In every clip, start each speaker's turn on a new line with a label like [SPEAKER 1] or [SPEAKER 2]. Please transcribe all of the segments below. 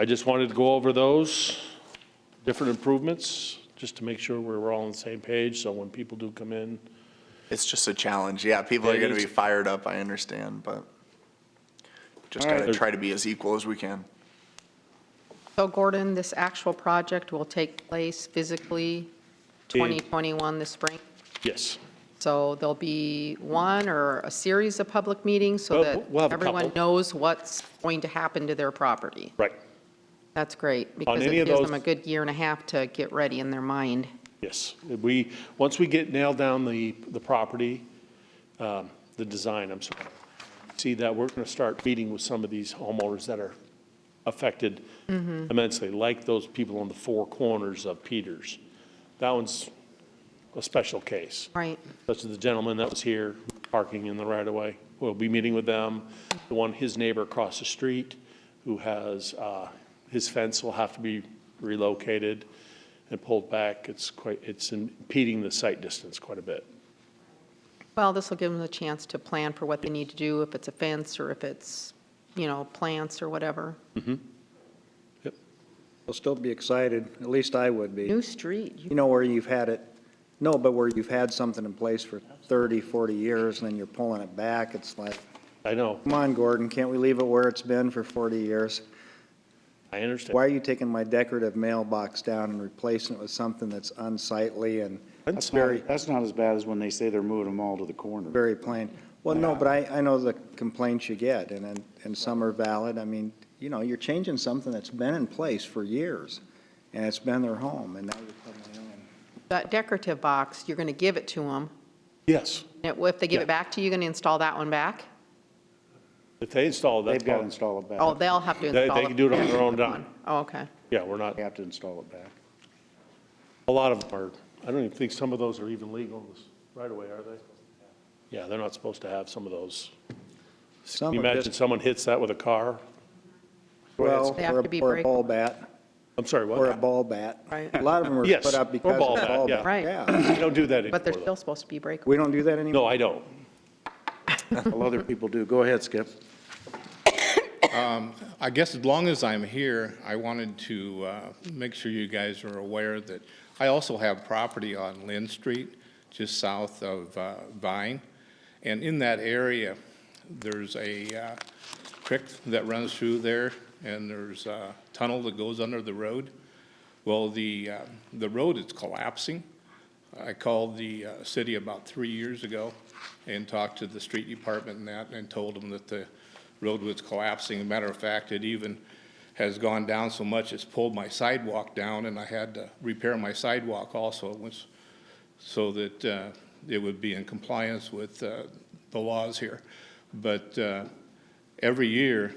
[SPEAKER 1] I just wanted to go over those different improvements, just to make sure we we're all on the same page, so when people do come in,
[SPEAKER 2] It's just a challenge. Yeah, people are
[SPEAKER 1] It
[SPEAKER 2] going to
[SPEAKER 1] is.
[SPEAKER 2] be fired up, I understand, but just
[SPEAKER 1] All right.
[SPEAKER 2] got to try to be as equal as we can.
[SPEAKER 3] So Gordon, this actual project will take place physically 2021 this spring?
[SPEAKER 1] yes.
[SPEAKER 3] So there'll be one or a series of public meetings so
[SPEAKER 1] Well,
[SPEAKER 3] that
[SPEAKER 1] we'll have a
[SPEAKER 3] everyone
[SPEAKER 1] couple.
[SPEAKER 3] knows what's going to happen to their property.
[SPEAKER 1] Right,
[SPEAKER 3] That's great, because
[SPEAKER 1] any
[SPEAKER 3] it
[SPEAKER 1] of
[SPEAKER 3] gives
[SPEAKER 1] those-
[SPEAKER 3] them a good year and a half to get ready in their mind.
[SPEAKER 1] yes. We, once we get nailed down the, the property, um, the design, I'm sorry, see that, we're gonna start meeting with some of these homeowners that are affected immensely, like those people on the four corners of Peters. That one's a special case.
[SPEAKER 3] Right,
[SPEAKER 1] such as the gentleman that was here parking in the right-of-way. We'll be meeting with them. The one, his neighbor across the street, who has, uh, his fence will have to be relocated and pulled back. It's quite, it's impeding the sight distance quite a bit.
[SPEAKER 3] well, this will give them a chance to plan for what they need to do, if it's a fence or if it's, you know, plants or whatever.
[SPEAKER 4] I'll still be excited, at least I would be.
[SPEAKER 3] New street, you-
[SPEAKER 4] You know where you've had it, no, but where you've had something in place for 30, 40 years, and then you're pulling it back, it's like,
[SPEAKER 1] I know,
[SPEAKER 4] come on, Gordon, can't we leave it where it's been for 40 years?
[SPEAKER 1] I understand.
[SPEAKER 4] Why are you taking my decorative mailbox down and replacing it with something that's unsightly and
[SPEAKER 5] That's
[SPEAKER 4] very,
[SPEAKER 5] not, that's not as bad as when they say they're moving them all to the corner.
[SPEAKER 4] very plain? Well, no, but I, I know the complaints you get, and, and- and some are valid. I mean, you know, you're changing something that's been in place for years, and it's been their home, and now you're putting it in.
[SPEAKER 3] that decorative box, you're going to give it to them.
[SPEAKER 1] Yes,
[SPEAKER 3] If they give
[SPEAKER 1] Yeah.
[SPEAKER 3] it back to you, you're going to install that one back?
[SPEAKER 1] if they install that,
[SPEAKER 5] They've got to
[SPEAKER 1] they,
[SPEAKER 5] install it back.
[SPEAKER 3] Oh, they'll have to
[SPEAKER 1] they
[SPEAKER 3] install it.
[SPEAKER 1] can do it on their own dime.
[SPEAKER 3] Oh, okay.
[SPEAKER 1] Yeah, we're not,
[SPEAKER 5] They have to install it back.
[SPEAKER 1] a lot of them are, I don't even think some of those are even legal right away, are they? Yeah, they're not supposed to have some of those. Can
[SPEAKER 4] Some
[SPEAKER 1] you
[SPEAKER 4] are
[SPEAKER 1] imagine
[SPEAKER 4] just-
[SPEAKER 1] someone hits that with a car?
[SPEAKER 4] Well,
[SPEAKER 3] They have
[SPEAKER 4] or
[SPEAKER 3] to be
[SPEAKER 4] a- or a
[SPEAKER 3] break-
[SPEAKER 4] ball bat,
[SPEAKER 1] I'm sorry, what?
[SPEAKER 4] or a ball bat.
[SPEAKER 3] Right.
[SPEAKER 4] A lot of them were
[SPEAKER 1] Yes,
[SPEAKER 4] put up
[SPEAKER 1] or
[SPEAKER 4] because of
[SPEAKER 1] ball bat,
[SPEAKER 4] ball
[SPEAKER 1] yeah.
[SPEAKER 4] bat.
[SPEAKER 3] Right.
[SPEAKER 4] Yeah,
[SPEAKER 1] I don't do that
[SPEAKER 3] But they're
[SPEAKER 1] anymore.
[SPEAKER 3] still supposed to be breakable.
[SPEAKER 4] we don't do that anymore.
[SPEAKER 1] No, I don't.
[SPEAKER 5] Well, other people do. Go ahead, Skip.
[SPEAKER 6] I guess as long as I'm here, I wanted to uh, make sure you guys are aware that I also have property on Lynn Street, just south of uh, Vine. And in that area, there's a uh, creek that runs through there, and there's a tunnel that goes under the road. Well, the, uh, the road is collapsing. I called the uh, city about three years ago and talked to the street department and that, and told them that the road was collapsing. As a matter of fact, it even has gone down so much, it's pulled my sidewalk down, and I had to repair my sidewalk also, which, so that uh, it would be in compliance with uh, the laws here. But uh, every year,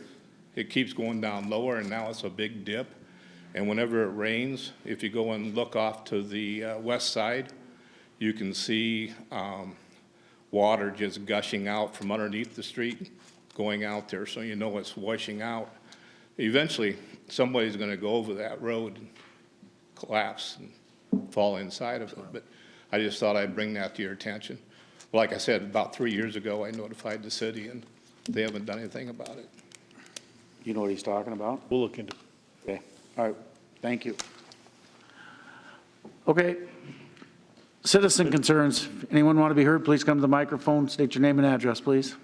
[SPEAKER 6] it keeps going down lower, and now it's a big dip. And whenever it rains, if you go and look off to the uh, west side, you can see um, water just gushing out from underneath the street, going out there, so you know it's washing out. Eventually, somebody's going to go over that road and collapse and fall inside of it. But I just thought I'd bring that to your attention. Like I said, about three years ago, I notified the city, and they haven't done anything about it.
[SPEAKER 5] You know what he's talking about?
[SPEAKER 1] We'll look into it.
[SPEAKER 5] Okay, all right, thank you. Okay, citizen concerns. Anyone want to be heard, please come to the microphone, state your name and address, please.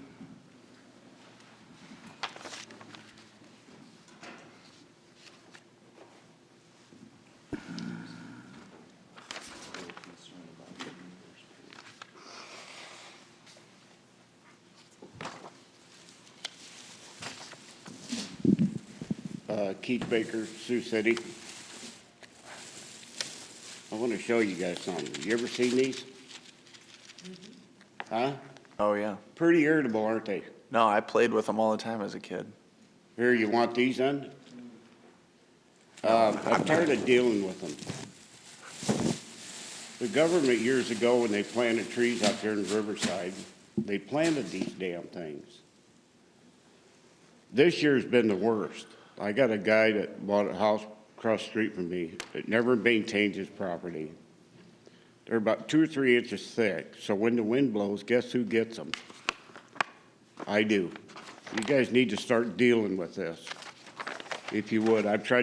[SPEAKER 7] Uh, Keith Baker, Sioux City. I want to show you guys something. You ever seen these? Huh?
[SPEAKER 2] Oh, yeah.
[SPEAKER 7] Pretty irritable, aren't they?
[SPEAKER 2] No, I played with them all the time as a kid.
[SPEAKER 7] Here, you want these done? Uh, I'm tired of dealing with them. The government years ago, when they planted trees out there in Riverside, they planted these damn things. This year's been the worst. I got a guy that bought a house across the street from me that never maintains his property. They're about two or three inches thick, so when the wind blows, guess who gets them? I do. You guys need to start dealing with this. if you would. I've tried